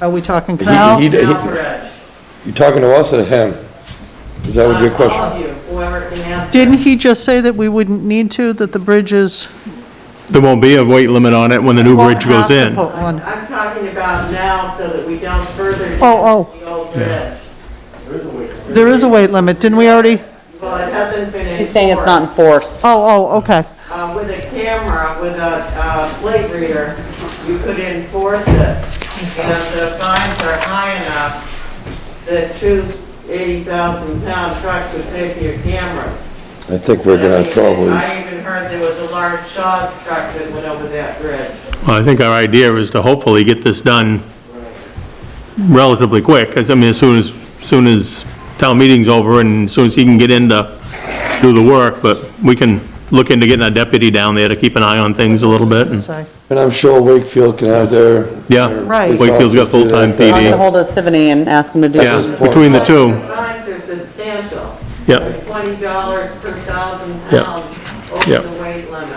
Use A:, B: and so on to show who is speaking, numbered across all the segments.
A: Are we talking
B: He-
A: Cal?
B: he- he-
C: Alvarez.
B: You talking to us or to him? Is that what your
C: All of
B: question?
C: you, whoever can answer.
A: Didn't he just say that we wouldn't need to, that the bridge is?
D: There won't be a weight limit on it when the new
A: won't
D: bridge
A: have
D: goes
A: to
D: in.
A: put
C: I'm
A: one?
C: I'm talking about now so that we don't further.
A: Oh,
C: damage The old bridge.
A: There is a weight limit, didn't we already?
C: Well, it hasn't been.
E: He's saying it's not
C: enforced.
E: enforced.
A: Oh, oh, okay.
C: Uh, with a camera, with a, uh, plate reader, you could enforce it. And if the fines are high enough, the two eighty thousand pound trucks would pay for your cameras.
B: I think we're gonna probably,
C: I even heard there was a large Shaw's truck that went over that bridge.
D: Well, I think our idea is to hopefully get this done relatively quick, because I mean, as soon as, soon as town meeting's over and as soon as he can get in to do the work, but we can look into getting a deputy down there to keep an eye on things a little bit. and-
A: Sorry.
B: and I'm sure Wakefield can have their.
D: Yeah.
B: their
A: Right.
B: police
D: Wakefield's got
B: officers do
D: full-time
B: that.
D: PD.
E: I'll get ahold of Sivany and ask him to do
D: Yeah,
E: it.
D: between the two.
C: The fines are substantial.
D: Yeah.
C: They're Twenty dollars per thousand
D: Yeah.
C: pounds
D: Yeah.
C: over the weight limit.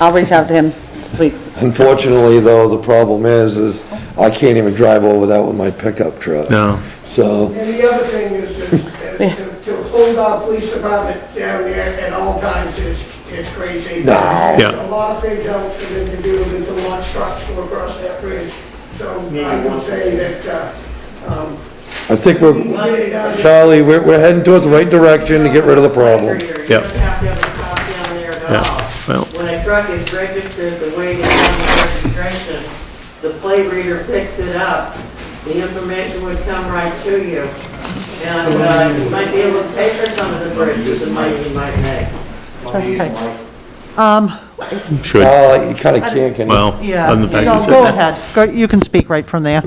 E: I'll reach out to him this week.
B: Unfortunately, though, the problem is, is I can't even drive over that with my pickup truck.
D: No.
B: So,
F: And the other thing is, is is to to hold our police department down there at all times is, is crazy.
B: No.
D: Yeah.
F: A lot of things else for them to do than to launch trucks to across that bridge. So I would say that, uh, um,
B: I think
F: we
B: we're,
F: get it down there.
B: Charlie, we're, we're heading towards the right direction to get rid of the problem.
C: You don't
D: Yep.
C: have to have a cop down there
D: Yeah,
C: at all.
D: well.
C: When a truck is registered, the weight is on the registration, the plate reader picks it up. The information would come right to you. And uh, you might be able to pay for some of the bridges, the money you might make.
A: Okay. Um,
D: Should,
B: Uh, you kinda can't, can you?
D: well,
A: yeah,
D: other than the fact you
A: no,
D: said
A: go
D: that.
A: ahead. Go- You can speak right from there.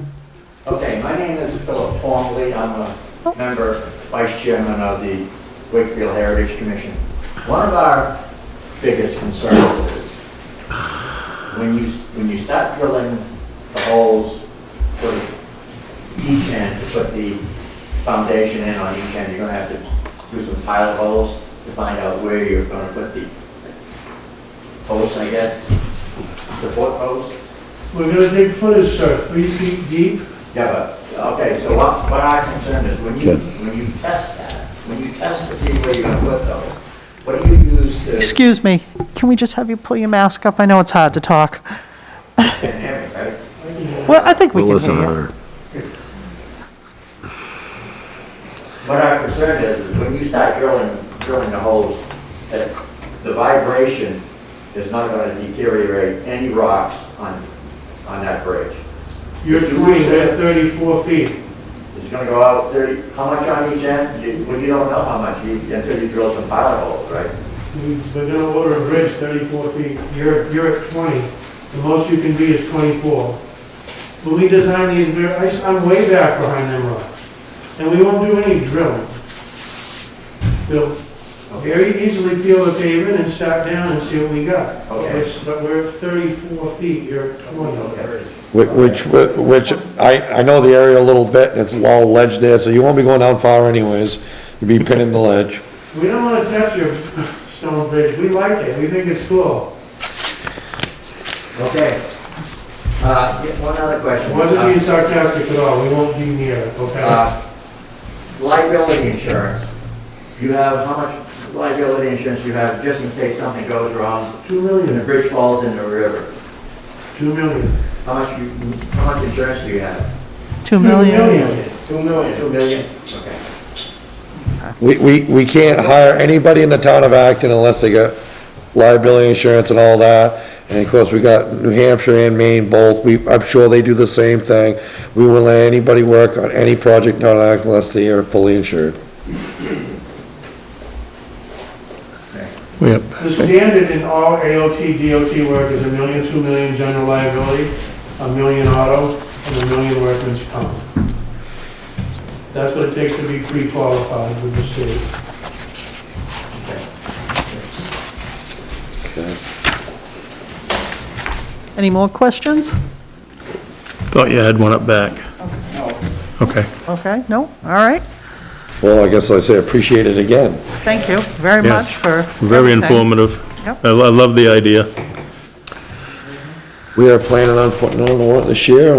G: Okay, my name is Philip Longley. I'm a member, vice chairman of the Wakefield Heritage Commission. One of our biggest concerns is when you, when you start drilling the holes for each end, to put the foundation in on each end, you're gonna have to do some pilot holes to find out where you're gonna put the posts, I guess, support posts.
H: We're gonna dig footage, sir, three feet deep.
G: Yeah, but, okay, so what, what our concern is, when you,
B: Okay.
G: when you test that, when you test to see where you're gonna put those, what do you use to, you
A: Excuse me, can we just have you pull your mask up? I know it's hard to talk.
G: can hear me, right?
A: Well, I think we can hear you.
G: What our concern is, is when you start drilling, drilling the holes, that the vibration is not gonna deteriorate any rocks on, on that bridge.
H: You're twenty, we're thirty-four feet.
G: It's gonna go out thirty, how much on each end? You, well, you don't know how much, you- until you drill some pilot holes, right?
H: We- We're gonna order a bridge thirty-four feet. You're, you're at twenty. The most you can be is twenty-four. When we design these, we're- I s- I'm way back behind them rocks. And we won't do any drilling. We'll very easily peel the pavement and start down and see what we got.
G: Okay.
H: It's- But we're at thirty-four feet, you're at twenty.
B: Whi- Which, which, I, I know the area a little bit, and it's a lot of ledge there, so you won't be going down far anyways. You'll be pinning the ledge.
H: We don't wanna touch your stone bridge. We like it. We think it's cool.
G: Okay. Uh, yeah, one other question.
H: Wasn't
G: Uh,
H: being sarcastic at all, we won't be near it, okay?
G: Uh, Liability insurance, you have, how much liability insurance you have just in case something goes wrong
H: Two
G: and the
H: million,
G: bridge falls in the river?
H: two million.
G: How much you, how much insurance do you have?
A: Two million.
G: Two million. Two million, okay.
B: We, we, we can't hire anybody in the town of Acton unless they got liability insurance and all that. And of course, we got New Hampshire and Maine both, we, I'm sure they do the same thing. We won't let anybody work on any project in town of Acton unless they are fully insured.
D: Yep.
H: The standard in all AOT, DOT work is a million, two million general liability, a million auto, and a million workman's comp. That's what it takes to be pre-qualified with the state.
A: Any more questions?
D: Thought you had one up back. Okay.
A: Okay, no, all right.
B: Well, I guess I say appreciate it again.
A: Thank you very much
D: Yes.
A: for
D: Very
A: everything.
D: informative.
A: Yep.
D: I lo- I love the idea.
B: We are planning on putting on the warrant this year,